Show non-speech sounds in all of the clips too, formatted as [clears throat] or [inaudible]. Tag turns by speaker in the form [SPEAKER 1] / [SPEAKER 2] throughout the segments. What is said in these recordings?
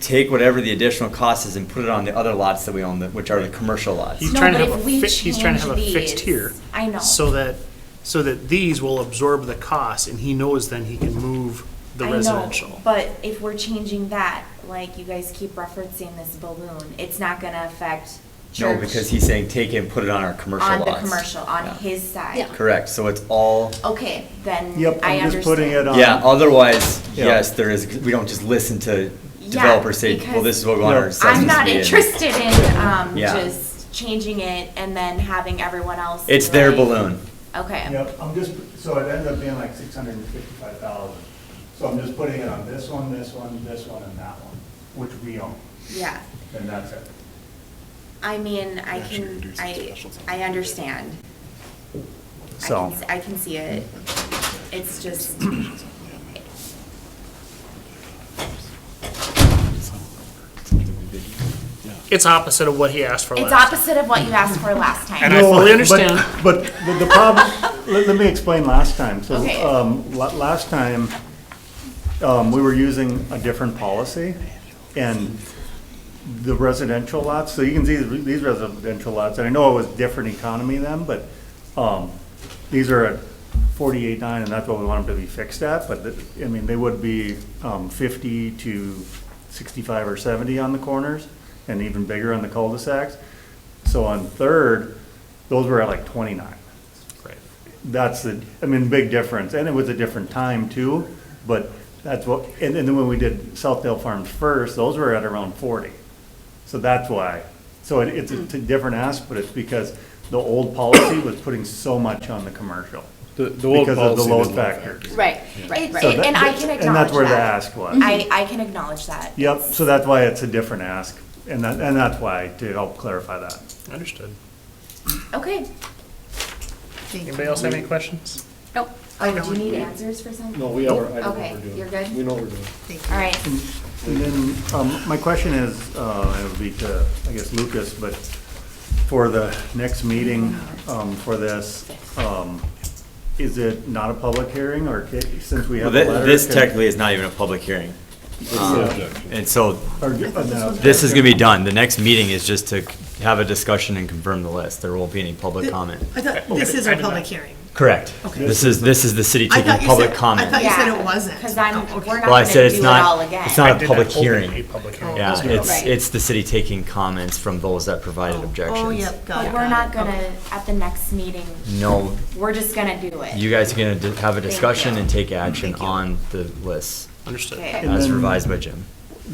[SPEAKER 1] take whatever the additional cost is and put it on the other lots that we own, that- which are the commercial lots.
[SPEAKER 2] He's
[SPEAKER 3] No,
[SPEAKER 2] trying to
[SPEAKER 3] but
[SPEAKER 2] have a
[SPEAKER 3] if we
[SPEAKER 2] fi- he's trying to have a
[SPEAKER 3] change
[SPEAKER 2] fixed
[SPEAKER 3] these-
[SPEAKER 2] tier.
[SPEAKER 3] I know.
[SPEAKER 2] So that, so that these will absorb the cost and he knows then he can move the
[SPEAKER 3] I know,
[SPEAKER 2] residential.
[SPEAKER 3] But if we're changing that, like you guys keep referencing this balloon, it's not gonna affect
[SPEAKER 1] No,
[SPEAKER 3] church.
[SPEAKER 1] because he's saying take it and put it on our commercial
[SPEAKER 3] On
[SPEAKER 1] lots.
[SPEAKER 3] the commercial,
[SPEAKER 1] Yeah.
[SPEAKER 3] on his side.
[SPEAKER 4] Yeah.
[SPEAKER 1] Correct, so it's all,
[SPEAKER 3] Okay, then I
[SPEAKER 5] Yep,
[SPEAKER 3] understand.
[SPEAKER 5] I'm just putting
[SPEAKER 6] um,
[SPEAKER 5] it on.
[SPEAKER 1] yeah, otherwise,
[SPEAKER 5] Yeah.
[SPEAKER 1] yes, there is, we don't just listen to
[SPEAKER 3] Yeah,
[SPEAKER 1] developers say, well,
[SPEAKER 3] because-
[SPEAKER 1] this is what we want
[SPEAKER 5] No.
[SPEAKER 1] our
[SPEAKER 5] I'm
[SPEAKER 1] assessments
[SPEAKER 3] I'm
[SPEAKER 1] to
[SPEAKER 3] not
[SPEAKER 1] be in."
[SPEAKER 3] interested in, um,
[SPEAKER 1] Yeah.
[SPEAKER 3] just changing it and then having everyone else.
[SPEAKER 1] It's their
[SPEAKER 3] like-
[SPEAKER 1] balloon.
[SPEAKER 3] Okay,
[SPEAKER 7] Yep, I'm just, so it ends up being like six hundred and fifty-five thousand. So I'm just putting it on this one, this one, this one, and that one, which we own,
[SPEAKER 3] yeah,
[SPEAKER 7] and that's it.
[SPEAKER 3] I mean, I
[SPEAKER 8] Actually
[SPEAKER 3] can,
[SPEAKER 8] reduce the
[SPEAKER 3] I,
[SPEAKER 8] specials on
[SPEAKER 3] I
[SPEAKER 8] Monday.
[SPEAKER 3] understand. I
[SPEAKER 5] So-
[SPEAKER 3] can s- I can see it, it's [clears throat] just,
[SPEAKER 2] It's opposite of what he asked for
[SPEAKER 3] it's
[SPEAKER 2] last.
[SPEAKER 3] opposite of what you asked for last time.
[SPEAKER 2] And I
[SPEAKER 5] No,
[SPEAKER 2] fully
[SPEAKER 5] but-
[SPEAKER 2] understand.
[SPEAKER 5] But the- the problem, let, let me explain last time. So,
[SPEAKER 3] Okay.
[SPEAKER 5] um, la- last time, um, we were using a different policy and the residential lots, so you can see these residential lots, and I know it was different economy then, but, um, these are at forty-eight nine and that's what we want them to be fixed at, but, the- I mean, they would be, um, fifty to sixty-five or seventy on the corners and even bigger on the cul-de-sacs. So on Third, those were at like twenty-nine.
[SPEAKER 2] Right.
[SPEAKER 5] That's the, I mean, big difference, and it was a different time too, but that's what, and, and then when we did Southdale Farms first, those were at around forty. So that's why, so it, it's a different ask, but it's because the old policy was putting so much on the commercial.
[SPEAKER 8] The, the old
[SPEAKER 5] Because of the
[SPEAKER 8] policy was
[SPEAKER 5] load
[SPEAKER 8] low
[SPEAKER 5] factor.
[SPEAKER 4] Right, right,
[SPEAKER 3] It's-
[SPEAKER 5] So
[SPEAKER 4] right.
[SPEAKER 5] that-
[SPEAKER 3] And I can
[SPEAKER 5] And that's where the
[SPEAKER 3] acknowledge
[SPEAKER 5] ask was.
[SPEAKER 3] I, I can acknowledge that.
[SPEAKER 5] Yep, so that's why it's a different ask, and that, and that's why, to help clarify that.
[SPEAKER 2] Understood.
[SPEAKER 3] Okay.
[SPEAKER 2] Anybody else have any questions?
[SPEAKER 4] Nope.
[SPEAKER 3] Oh, do you need answers for something?
[SPEAKER 8] No, we are, I know what
[SPEAKER 3] Okay,
[SPEAKER 8] we're doing.
[SPEAKER 3] you're good?
[SPEAKER 8] We know what we're doing.
[SPEAKER 3] All right,
[SPEAKER 5] And then, um, my question is, uh, it would be to, I guess, Lucas, but for the next meeting, um, for this, um, is it not a public hearing, or ca- since we
[SPEAKER 1] Well,
[SPEAKER 5] have a
[SPEAKER 1] thi-
[SPEAKER 5] letter?
[SPEAKER 1] This
[SPEAKER 5] can-
[SPEAKER 1] technically is not even a public hearing, Um, and so
[SPEAKER 5] or, uh, no.
[SPEAKER 1] This is gonna be done. The next meeting is just to have a discussion and confirm the list. There won't be any public comment.
[SPEAKER 6] I thought, this is
[SPEAKER 2] Oh, I
[SPEAKER 6] our
[SPEAKER 2] did
[SPEAKER 6] public
[SPEAKER 2] not-
[SPEAKER 6] hearing.
[SPEAKER 1] Correct.
[SPEAKER 6] Okay.
[SPEAKER 1] This is, this is the city
[SPEAKER 6] I
[SPEAKER 1] taking
[SPEAKER 6] thought you
[SPEAKER 1] public
[SPEAKER 6] said- I
[SPEAKER 1] comment.
[SPEAKER 6] thought you said
[SPEAKER 3] Yeah,
[SPEAKER 6] it wasn't.
[SPEAKER 3] 'cause I'm-
[SPEAKER 6] Oh, okay.
[SPEAKER 3] we're not-
[SPEAKER 1] Well, I
[SPEAKER 3] gonna
[SPEAKER 1] said it's
[SPEAKER 3] do it all
[SPEAKER 1] not,
[SPEAKER 3] again.
[SPEAKER 1] it's
[SPEAKER 2] I
[SPEAKER 1] not a
[SPEAKER 2] did
[SPEAKER 1] public
[SPEAKER 2] open A
[SPEAKER 1] hearing.
[SPEAKER 3] Oh,
[SPEAKER 2] public hearing.
[SPEAKER 1] Yeah,
[SPEAKER 2] That's
[SPEAKER 1] it's,
[SPEAKER 4] Right.
[SPEAKER 1] it's the city taking comments from those that provided
[SPEAKER 6] Oh,
[SPEAKER 1] objections.
[SPEAKER 6] yep, got it.
[SPEAKER 3] but we're
[SPEAKER 6] got
[SPEAKER 3] not
[SPEAKER 6] it.
[SPEAKER 3] gonna, at the next meeting,
[SPEAKER 1] No,
[SPEAKER 3] we're just gonna do it.
[SPEAKER 1] you guys are gonna di- have a
[SPEAKER 3] Thank
[SPEAKER 1] discussion
[SPEAKER 3] you.
[SPEAKER 1] and take action on the lists
[SPEAKER 2] Understood.
[SPEAKER 3] Okay.
[SPEAKER 5] And
[SPEAKER 1] as
[SPEAKER 5] then-
[SPEAKER 1] revised by Jim.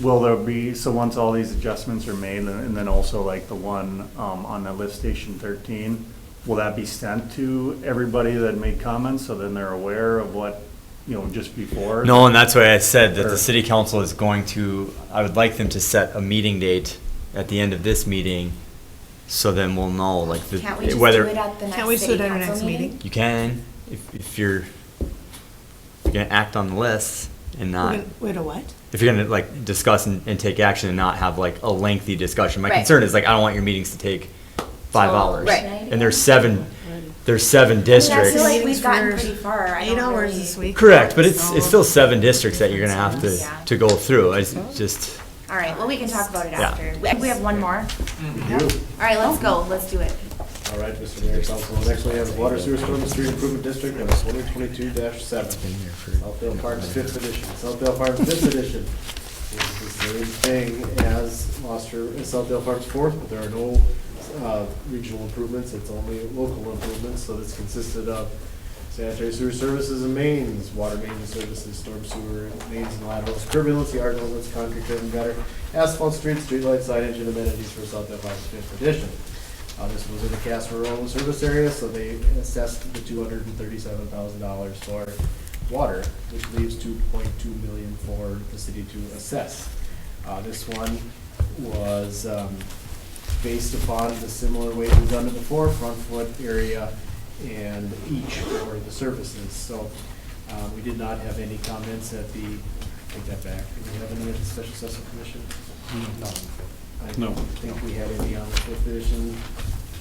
[SPEAKER 5] Will there be, so once all these adjustments are made, and and then also like the one, um, on the lift station thirteen, will that be sent to everybody that made comments, so then they're aware of what, you know, just before?
[SPEAKER 1] No, and that's why I said that the
[SPEAKER 5] Or-
[SPEAKER 1] city council is going to, I would like them to set a meeting date at the end of this meeting, so then we'll know, like, the-
[SPEAKER 3] Can't we just do it
[SPEAKER 1] whether,
[SPEAKER 3] at the
[SPEAKER 6] Can't we
[SPEAKER 3] next
[SPEAKER 6] do it
[SPEAKER 3] city
[SPEAKER 6] at our next
[SPEAKER 3] council meeting?
[SPEAKER 6] meeting?
[SPEAKER 1] you can, if, if you're, if you're gonna act on the list and
[SPEAKER 6] We're
[SPEAKER 1] not,
[SPEAKER 6] gonna- Wait, a what?
[SPEAKER 1] if you're gonna, like, discuss and, and take action and not have, like, a lengthy discussion. My
[SPEAKER 4] Right.
[SPEAKER 1] concern is, like, I don't want your meetings to take five
[SPEAKER 3] Till
[SPEAKER 1] hours.
[SPEAKER 4] Right.
[SPEAKER 3] tonight?
[SPEAKER 1] And there's seven, there's seven
[SPEAKER 3] I feel
[SPEAKER 1] districts.
[SPEAKER 3] like we've gotten
[SPEAKER 6] Meetings for
[SPEAKER 3] pretty far. I
[SPEAKER 6] Eight
[SPEAKER 3] don't
[SPEAKER 6] hours
[SPEAKER 3] really-
[SPEAKER 6] this week.
[SPEAKER 1] Correct, but it's,
[SPEAKER 6] So-
[SPEAKER 1] it's still seven districts that you're gonna have
[SPEAKER 3] Yeah.
[SPEAKER 1] to, to go through. It's just.
[SPEAKER 3] All right, well, we can talk about it
[SPEAKER 1] Yeah.
[SPEAKER 3] after. We- We have one more.
[SPEAKER 8] You.
[SPEAKER 3] All right, let's go, let's do it.
[SPEAKER 8] All right, Mr. Mayor, Council, next we have Water Sewer Storm and Street Improvement District, number twenty twenty-two seven. Southdale Farms Fifth Edition, Southdale Farms Fifth Edition. It's the same thing as Gloucester, uh, Southdale Farms Fourth, but there are no, uh, regional improvements, it's only local improvements, so this consisted of sanitary sewer services and mains, water mains services, storm sewer, mains and laterals, curb inlets, yard elements, concrete curb and gutter, asphalt streets, streetlight signage, and amenities for Southdale Farms Fifth Edition. Uh, this was in the Casper Rural Service Area, so they assessed the two hundred and thirty-seven thousand dollars for water, which leaves two point two million for the city to assess. Uh, this one was, um, based upon the similar way we've done it before, front foot area and each for the services, so, uh, we did not have any comments at the, take that back, did we have any at the special assessment commission? None. I
[SPEAKER 5] No.
[SPEAKER 8] don't think we had any on the fifth edition,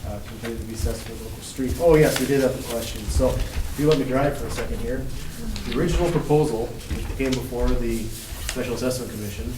[SPEAKER 8] uh, completed the assessment of local street. Oh, yes, we did have a question. So if you let me drive for a second here. The original proposal came before the Special Assessment Commission